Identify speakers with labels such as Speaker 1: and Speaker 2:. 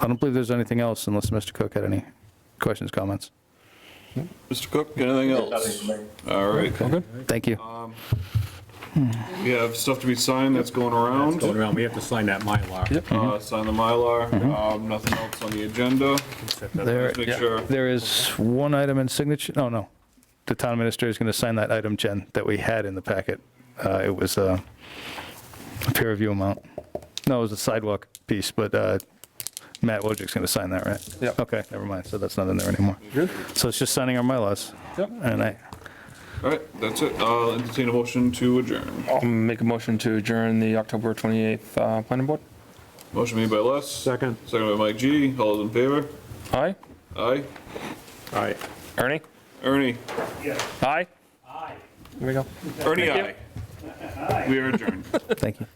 Speaker 1: I don't believe there's anything else unless Mr. Cook had any questions, comments.
Speaker 2: Mr. Cook, anything else? All right,
Speaker 1: Thank you.
Speaker 2: we have stuff to be signed that's going around.
Speaker 3: Going around, we have to sign that Mylar. Yep.
Speaker 2: Uh, Sign the Mylar, Um, nothing else on the agenda.
Speaker 1: There,
Speaker 2: Let's make sure.
Speaker 1: there is one item in signature, no, no. The town administrator is going to sign that item, Jen, that we had in the packet. Uh, It was uh, a peer review amount. No, it was a sidewalk piece, but uh, Matt Wojcik's going to sign that, right?
Speaker 4: Yeah.
Speaker 1: Okay, never mind, so that's not in there anymore.
Speaker 4: Good?
Speaker 1: So it's just signing our MyLars.
Speaker 4: Yep.
Speaker 1: And I,
Speaker 2: All right, that's it. I'll entertain a motion to adjourn.
Speaker 4: I'll make a motion to adjourn the October 28th uh, planning board.
Speaker 2: Motion made by Les.
Speaker 3: Second.
Speaker 2: Second by Mike G. All those in favor?
Speaker 4: Aye?
Speaker 2: Aye.
Speaker 3: All right.
Speaker 4: Ernie?
Speaker 2: Ernie?
Speaker 4: Aye? Aye. There we go.
Speaker 2: Ernie, aye. We are adjourned.
Speaker 1: thank you.